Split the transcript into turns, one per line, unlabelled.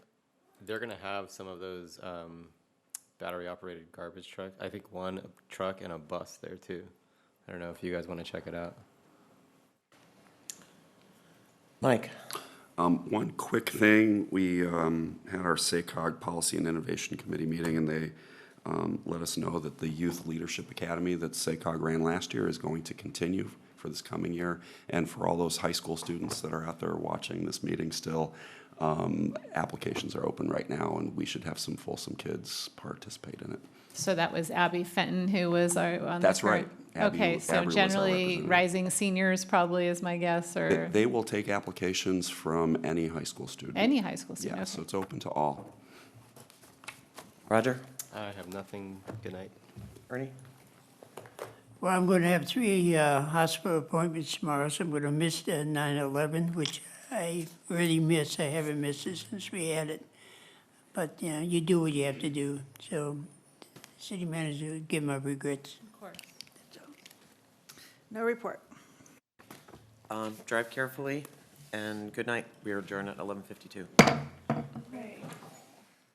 they're gonna have some of those um, battery-operated garbage trucks. I think one truck and a bus there too. I don't know if you guys want to check it out.
Mike?
Um, One quick thing, we um, had our SACOG Policy and Innovation Committee meeting, and they um, let us know that the Youth Leadership Academy that SACOG ran last year is going to continue for this coming year. And for all those high school students that are out there watching this meeting still, um, applications are open right now, and we should have some Folsom kids participate in it.
So that was Abby Fenton who was our, on the.
That's right.
current-
Abby-
Okay, so
Abby was our
generally,
representative.
rising seniors probably is my guess,
They-
or
They will take applications from any high school student.
any high school
Yeah,
student.
so
Okay.
it's open to all.
Roger?
I have nothing. Good night.
Ernie?
Well, I'm going to have three uh, hospital appointments tomorrow, so I'm going to miss the 9/11, which I really miss. I haven't missed it since we had it. But, you know, you do what you have to do. So, city manager, give my regrets.
No report.
Um, drive carefully and good night. We are adjourned at eleven fifty-two.